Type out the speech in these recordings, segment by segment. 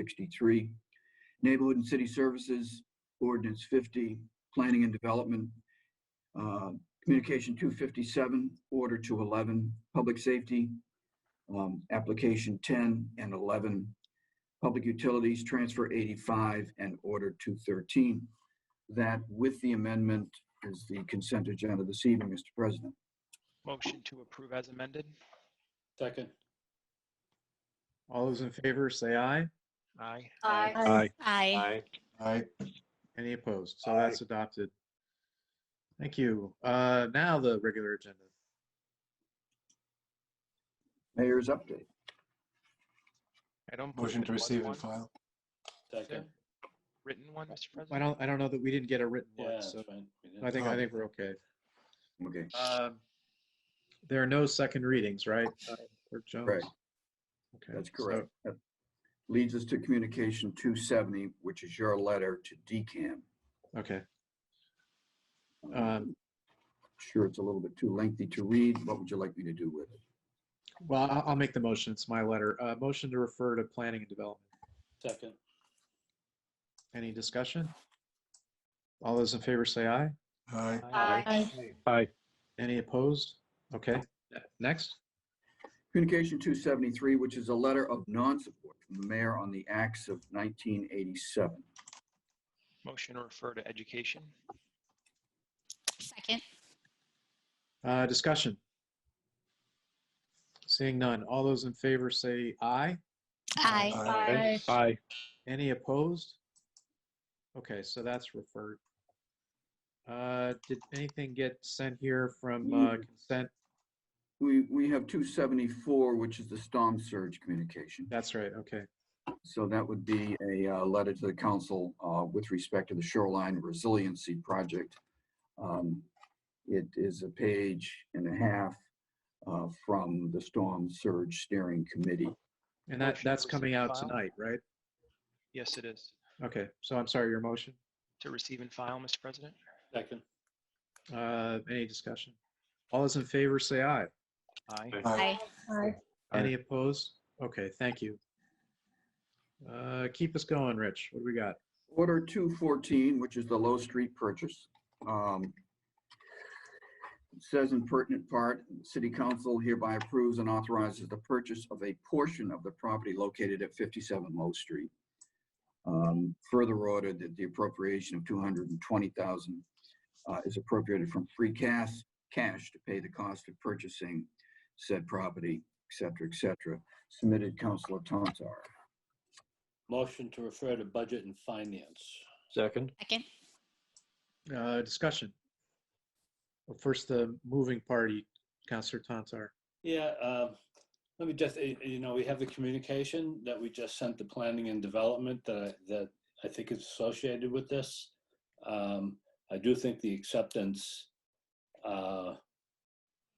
263. Neighborhood and City Services, ordinance 50. Planning and Development, uh, Communication 257, Order 211. Public Safety, um, Application 10 and 11. Public Utilities, Transfer 85, and Order 213. That, with the amendment, is the consent agenda this evening, Mr. President. Motion to approve as amended. Second. All those in favor, say aye. Aye. Aye. Aye. Aye. Aye. Any opposed? So that's adopted. Thank you. Uh, Now the regular agenda. Mayor's update. Item Motion to receive and file. Second. Written one, Mr. I President. don't, I don't know that we didn't get a written Yeah, one, that's so fine. We did. I think, I think we're okay. Okay. Um, There are no second readings, right? uh, Clerk Jones? Right. Okay, That's so- correct. That Leads us to communication 270, which is your letter to DCAM. Okay. Um, Um, Sure, it's a little bit too lengthy to read. What would you like me to do with it? Well, I- I'll make the motion. It's my letter. Uh, Motion to refer to planning and development. Second. Any discussion? All those in favor, say aye. Aye. Aye. Any opposed? Okay, ne- next. Communication 273, which is a letter of non-support from the mayor on the acts of 1987. Motion to refer to education. Second. Uh, Discussion. Seeing none. All those in favor say aye. Aye. Aye. Any opposed? Okay, so that's referred. Uh, Did anything get sent here from uh, Mm. consent? We, we have 274, which is the storm surge communication. That's right, okay. So that would be a uh, letter to the council uh, with respect to the shoreline resiliency project. Um, It is a page and a half uh, from the Storm Surge Steering Committee. And that, Motion to that's coming receive out file. tonight, right? Yes, it is. Okay, so I'm sorry, your motion? To receive and file, Mr. President. Second. Uh, Any discussion? All those in favor say aye. Aye. Aye. Aye. Any opposed? Okay, thank you. Uh, Keep us going, Rich. What do we got? Order 214, which is the Low Street purchase. um, it Says in pertinent part, "The City Council hereby approves and authorizes the purchase of a portion of the property located at 57 Low Street. Um, Further ordered that the appropriation of 220,000 uh, is appropriated from free cash, cash to pay the cost of purchasing said property, et cetera, et cetera." Submitted Councilor Tantar. Motion to refer to budget and finance. Second. Second. Uh, Discussion. Well, First, the moving party, Counselor Tantar. Yeah, um, let me just, eh, eh, you know, we have the communication that we just sent to planning and development that, I- that I think is associated with this. Um, I do think the acceptance, uh,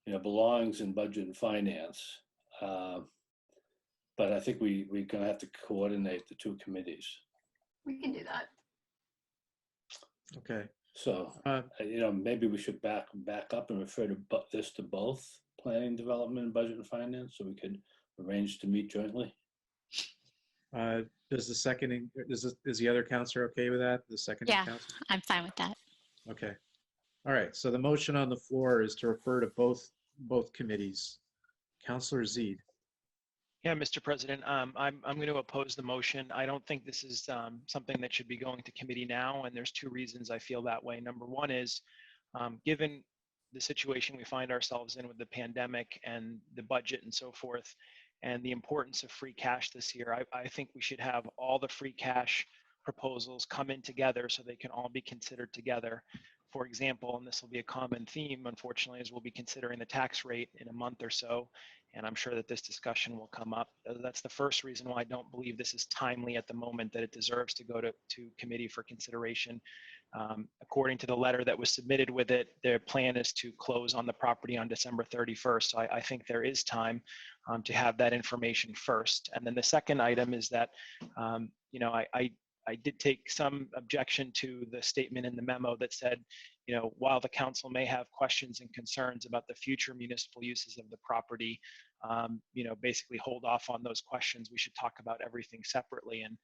you know, belongs in budget and finance. Uh, But I think we, we're gonna have to coordinate the two committees. We can do that. Okay. So Uh, uh, you know, maybe we should back, back up and refer to bu- this to both planning, development, and budget and finance, so we could arrange to meet jointly. uh, Does the seconding, is, this- is the other counselor okay with that? The second Yeah. counselor? I'm fine with that. Okay. All right. So the motion on the floor is to refer to both, both committees. Counselor Z. Yeah, Mr. President, um, I'm, I'm going to oppose the motion. I don't think this is um, something that should be going to committee now, and there's two reasons I feel that way. Number one is, um, given the situation we find ourselves in with the pandemic and the budget and so forth, and the importance of free cash this year, I, I think we should have all the free cash proposals come in together so they can all be considered together. For example, and this will be a common theme, unfortunately, is we'll be considering the tax rate in a month or so and I'm sure that this discussion will come up. Uh, That's the first reason why I don't believe this is timely at the moment, that it deserves to go to, to committee for consideration. Um, According to the letter that was submitted with it, their plan is to close on the property on December 31st. So I, I think there is time um, to have that information first. And then the second item is that, um, you know, I, I, I did take some objection to the statement in the memo that said, you know, while the council may have questions and concerns about the future municipal uses of the property, um, you know, basically hold off on those questions. We should talk about everything separately and